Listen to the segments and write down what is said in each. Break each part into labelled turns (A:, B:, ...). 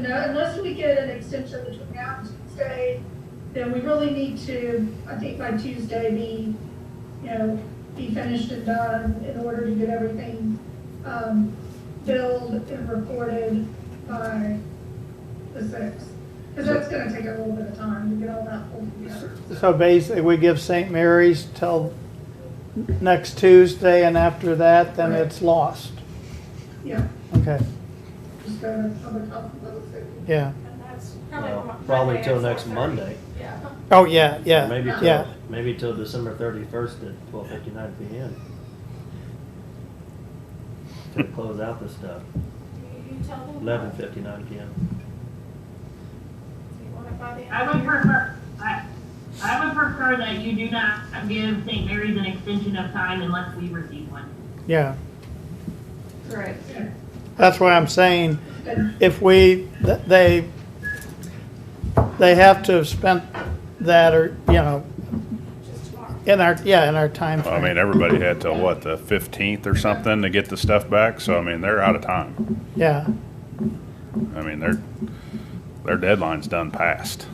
A: know, unless we get an extension between now and Tuesday, then we really need to, I think by Tuesday, be, you know, be finished and done in order to get everything, um, billed and recorded by the sixth. Because that's gonna take a little bit of time to get all that pulled together.
B: So basically, we give St. Mary's till next Tuesday, and after that, then
A: Right.
B: it's lost.
A: Yeah,
B: Okay,
A: just go to public health and public safety.
B: yeah.
C: And that's probably.
D: Well,
C: my-
D: Probably
C: my
D: till
C: answer.
D: next Monday.
C: Yeah.
B: Oh, yeah, yeah,
D: Maybe till,
B: yeah.
D: maybe till December thirty-first at twelve fifty-nine PM. To close out this stuff,
C: You you tell them.
D: eleven fifty-nine PM.
C: You want it by the
E: I
C: end.
E: would prefer, I, I would prefer that you do not give St. Mary's an extension of time unless we receive one.
B: yeah.
C: Correct.
A: Yeah.
B: That's what I'm saying.
A: And
B: If we, th- they, they have to have spent that or, you know,
C: Just tomorrow.
B: in our, yeah, in our time
F: I mean,
B: frame.
F: everybody had till what, the fifteenth or something to get the stuff back, so I mean, they're out of time.
B: Yeah,
F: I mean, their, their deadline's done passed.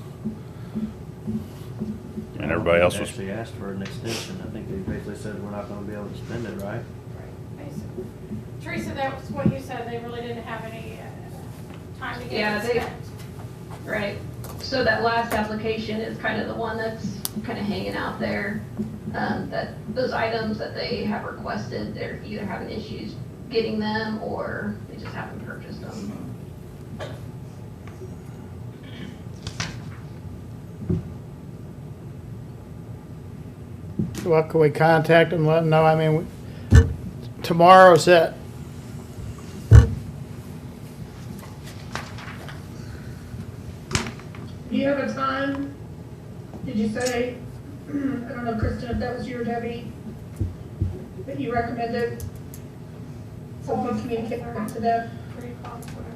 F: And everybody else was,
D: Actually asked for an extension, I think they basically said we're not gonna be able to spend it, right?
C: Right, basically. Teresa, that was what you said, they really didn't have any uh, time to
G: Yeah,
C: get it
G: they-
C: spent.
G: Right, so that last application is kind of the one that's kind of hanging out there. Um, that, those items that they have requested, they're either having issues getting them or they just haven't purchased them.
B: well, can we contact them, let them know, I mean, we- tomorrow's it.
A: Do you have a time? Did you say, I don't know, Kristen, if that was you or Debbie, that you recommended someone communicate back to them?
C: Three o'clock, whatever.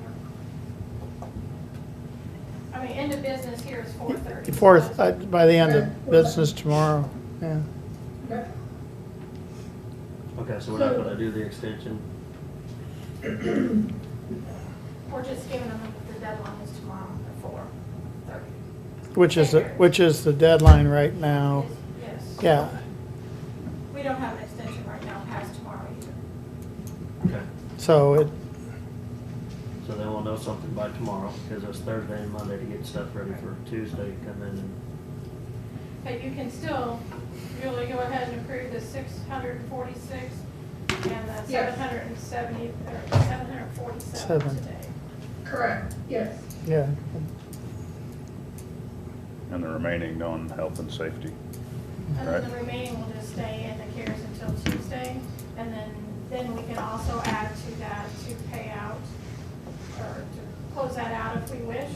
C: I mean, end of business here is four thirty.
B: Fourth, uh, by the end of business tomorrow, yeah.
A: Okay.
D: Okay, so we're not
A: So-
D: gonna do the extension,
C: We're just giving them the deadline is tomorrow at four thirty.
B: Which is, the- which is the deadline right now,
C: Yes.
B: Oh. yeah.
C: We don't have an extension right now past tomorrow either.
D: okay,
B: So it,
D: so then we'll know something by tomorrow, cause it's Thursday and Monday to get stuff ready for Tuesday, come in and
C: But you can still really go ahead and approve the six hundred and forty-six and the
A: Yes.
C: seven hundred and seventy, or seven hundred and forty-seven
B: Seven.
C: today.
A: Correct, yes.
B: yeah,
F: and the remaining on health and safety.
C: And then
F: Right.
C: the remaining will just stay in the CARES until Tuesday. And then, then we can also add to that to pay out or to close that out if we wish.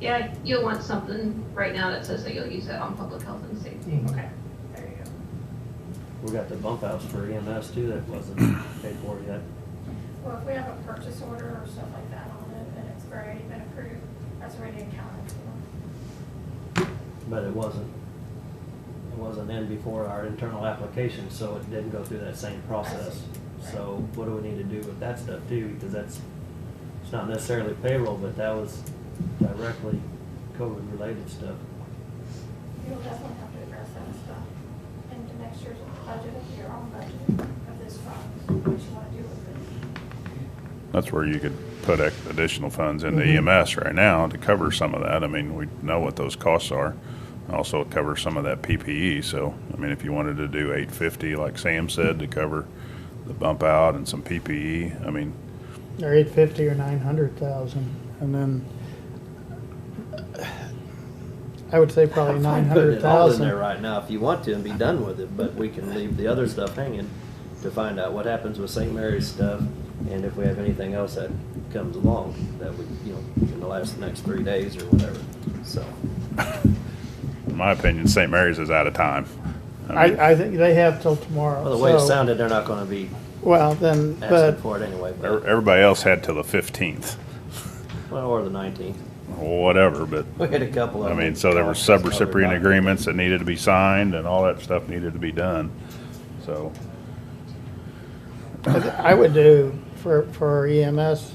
G: Yeah, you'll want something right now that says that you'll use that on public health and safety.
B: Mm.
C: Okay. There you go.
D: We got the bump outs for EMS too, that wasn't paid for yet.
C: Well, if we have a purchase order or stuff like that on it and it's already been approved, that's already accounted for.
D: But it wasn't, it wasn't in before our internal application, so it didn't go through that same process. So what do we need to do with that stuff too? Because that's, it's not necessarily payroll, but that was directly COVID-related stuff.
C: You'll definitely have to address that stuff into next year's budget, your own budget of this fund, what you want to do with it.
F: That's where you could put ec- additional funds into EMS right now to cover some of that. I mean, we know what those costs are. Also, it covers some of that PPE, so, I mean, if you wanted to do eight fifty, like Sam said, to cover the bump out and some PPE, I mean,
B: or eight fifty or nine hundred thousand, and then I would say probably nine hundred
D: Putting it all in there
B: thousand.
D: right now if you want to and be done with it, but we can leave the other stuff hanging to find out what happens with St. Mary's stuff and if we have anything else that comes along that we, you know, in the last, next three days or whatever, so.
F: in my opinion, St. Mary's is out of time. I mean,
B: I, I think they have till tomorrow,
D: Well, the way it
B: so-
D: sounded, they're not gonna be
B: Well, then, but,
D: asking for it anyway,
F: e-
D: but,
F: Everybody else had till the fifteenth,
D: well, or the nineteenth.
F: whatever, but,
D: We had a couple of
F: I
D: them.
F: mean, so there were sub-recipient agreements that needed to be signed and all that stuff needed to be done, so.
B: I th- I would do for, E for EMS,